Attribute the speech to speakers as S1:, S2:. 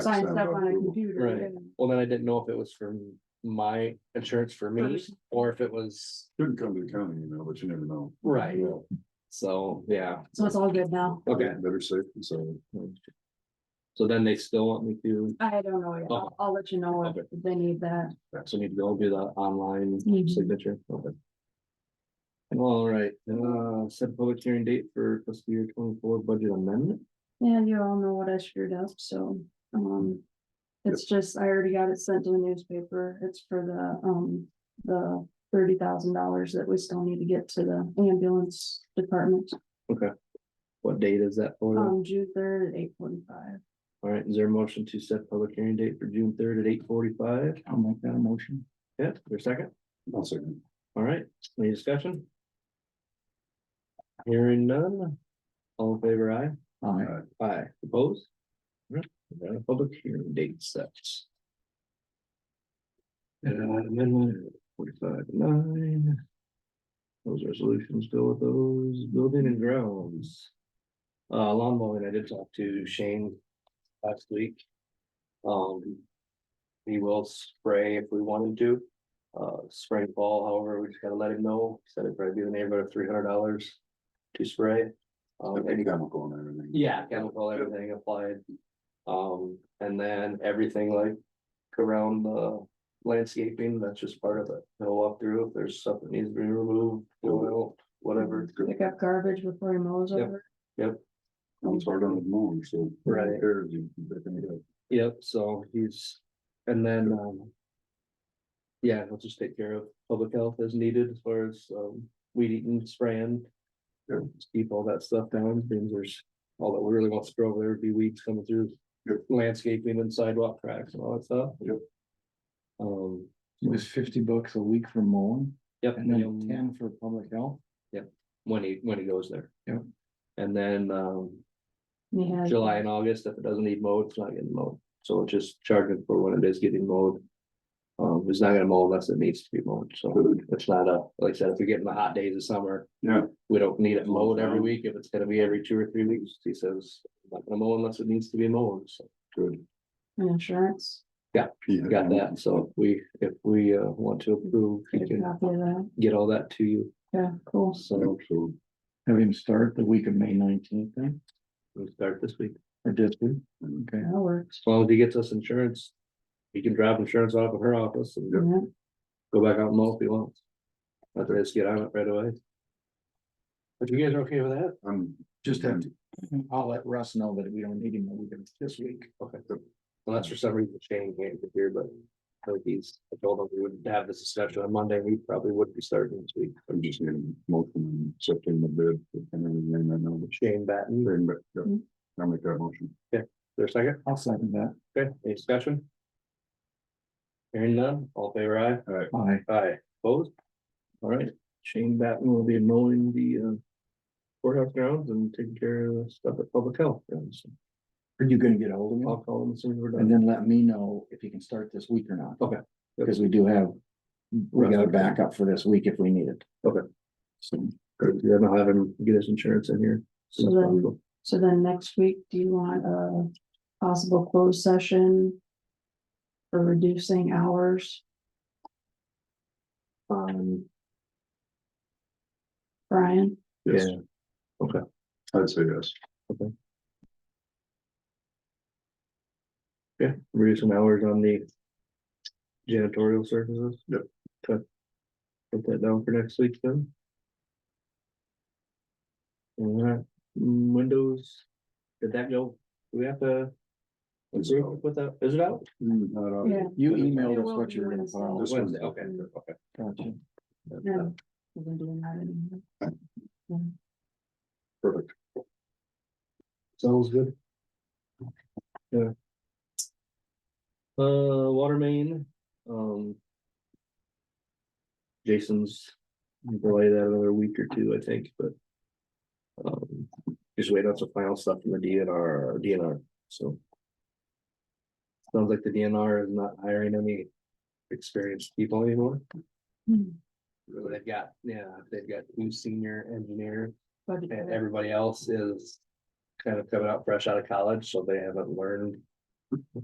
S1: sign stuff on a
S2: Right.
S1: computer.
S2: Well, then I didn't know if it was for my insurance for me
S1: Person.
S2: or if it was,
S3: Shouldn't come to the county, you know, but you never know.
S2: Right.
S3: Yeah.
S2: so, yeah,
S1: So it's all good now.
S2: okay.
S3: Better safe than sorry.
S2: So then they still want me to,
S1: I don't know. yet. I'll, I'll let you know if
S2: Okay.
S1: they need that.
S2: so need to go do the online
S1: Mhm.
S2: signature. Okay. All right, uh, set public hearing date for fiscal year twenty-four budget amendment.
S1: Yeah, you all know what I screwed up, so, um. It's just, I already got it sent to the newspaper. It's for the, um, the thirty thousand dollars that we still need to get to the ambulance department.
S2: What date is that for?
S1: Um, June third at eight forty-five.
S2: All right, is there a motion to set public hearing date for June third at eight forty-five? I'll make that a motion. Yeah, your second?
S3: I'll second.
S2: All right, any discussion? Hearing none, all in favor, aye? Aye. Aye, opposed? All right, we got a Public hearing date set. And amendment forty-five nine. Those resolutions go with those building and grounds. Uh, lawn mowing, I did talk to Shane last week. Um. He will spray if we wanted to uh, spring, fall, however, we just gotta let him know, He said it'd probably be in the neighborhood of three hundred dollars to spray. Um,
S3: Any chemical and everything.
S2: yeah, chemical, everything applied. Um, and then everything like around the landscaping, that's just part of it, they'll walk through, if there's stuff that needs to be removed, oil, whatever.
S1: Pick up garbage before he mows
S2: Yep.
S1: over.
S3: I'm sorry, on the moon, so.
S2: Right.
S3: There, you can pick any up.
S2: Yep, so he's, and then, um. Yeah, he'll just take care of public health as needed as far as, um, weed eating, spraying.
S3: Sure.
S2: Just Keep all that stuff down, things there's, all that we really want to grow, there would be weeds coming through.
S3: Yep.
S2: Landscaping and sidewalk cracks and all that stuff.
S3: Yep.
S2: Um,
S4: It was fifty bucks a week for mowing
S2: yep,
S4: and then
S2: um,
S4: ten for public health.
S2: when he, when he goes there.
S4: Yep.
S2: And then, um,
S1: and he has-
S2: July and August, if it doesn't need mowed, it's not getting mowed, so it's just charging for when it is getting mowed. Um, it's not gonna mow unless it needs to be mowed, so
S3: Good.
S2: it's not a, like I said, if we get in the hot days of summer.
S3: Yeah.
S2: We don't need it mowed every week, if it's gonna be every two or three weeks, he says, "I'm not gonna mow unless it needs to be mowed, so.
S3: Good.
S1: and Insurance.
S3: Yeah.
S2: Got that, so we, if we uh want to approve, we
S1: Get a
S2: can
S1: copy of that.
S2: get all that to you,
S1: Yeah, cool.
S2: so
S3: So,
S4: Have him start the week of May nineteenth then,
S2: we'll start this week,
S4: or this week. Okay,
S1: That works.
S2: as long as he gets us insurance. He can drop insurance off of her office and
S1: Yeah.
S2: go back out and mow if he wants. Let the rest get on it right away. But you guys are okay with that?
S3: I'm.
S4: just have to, I'll let Russ know that we don't need him the week of this week.
S2: Okay. Unless for some reason Shane can't get here, but I think he's, I told him we wouldn't have this discussion on Monday, we probably would be starting this week.
S3: I'm just getting motion and accepting the bid and everything I know.
S2: Shane Batten, is
S3: Thing, but, yeah,
S1: Mm.
S3: I'll make that motion.
S2: there a second?
S4: I'll second that.
S2: Okay, any discussion? Hearing none, all in favor aye.
S4: Aye.
S2: Aye, opposed? All right, Shane Batten will be mowing the uh. Courthouse grounds and taking care of the stuff at public health, and so
S4: Are you gonna get ahold of
S2: I'll
S4: him?
S2: call him as soon as we're done.
S4: And then let me know if he can start this week or not.
S2: Okay.
S4: Because we do have, we got a
S2: Russ.
S4: backup for this week if we need it.
S2: Okay.
S4: So,
S2: Good, then I'll have him get his insurance in here. as soon as
S1: So then-
S2: possible.
S1: So then next week, do you want a possible closed session? For reducing hours,
S2: Um,
S1: Brian?
S3: Yes.
S2: Yeah. Okay.
S3: I'd say yes.
S2: yeah, reduce some hours on the janitorial services.
S3: Yep.
S2: Okay. Put that down for next week then. All right, mm, windows, did that go, do we have to
S3: It's
S2: approve
S3: out.
S2: with that, is it out?
S3: Mm, not out.
S1: Oh, Yeah.
S4: You
S1: It
S4: emailed us
S1: will
S4: what
S1: be
S4: you were gonna
S1: Wednesday.
S4: file.
S3: This Wednesday,
S2: okay, okay.
S4: Gotcha.
S1: No, we've been doing that anyway.
S3: Perfect.
S2: Sounds good. Yeah. Uh, water main, um. Jason's delay that another week or two, I think, but. Um, just wait on some final stuff from the DNR, DNR, so. Sounds like the DNR is not hiring any experienced people anymore.
S1: Hmm,
S2: They've got, yeah, they've got two senior engineers.
S1: budget
S2: And
S1: there.
S2: everybody else is kind of coming out fresh out of college, so they haven't learned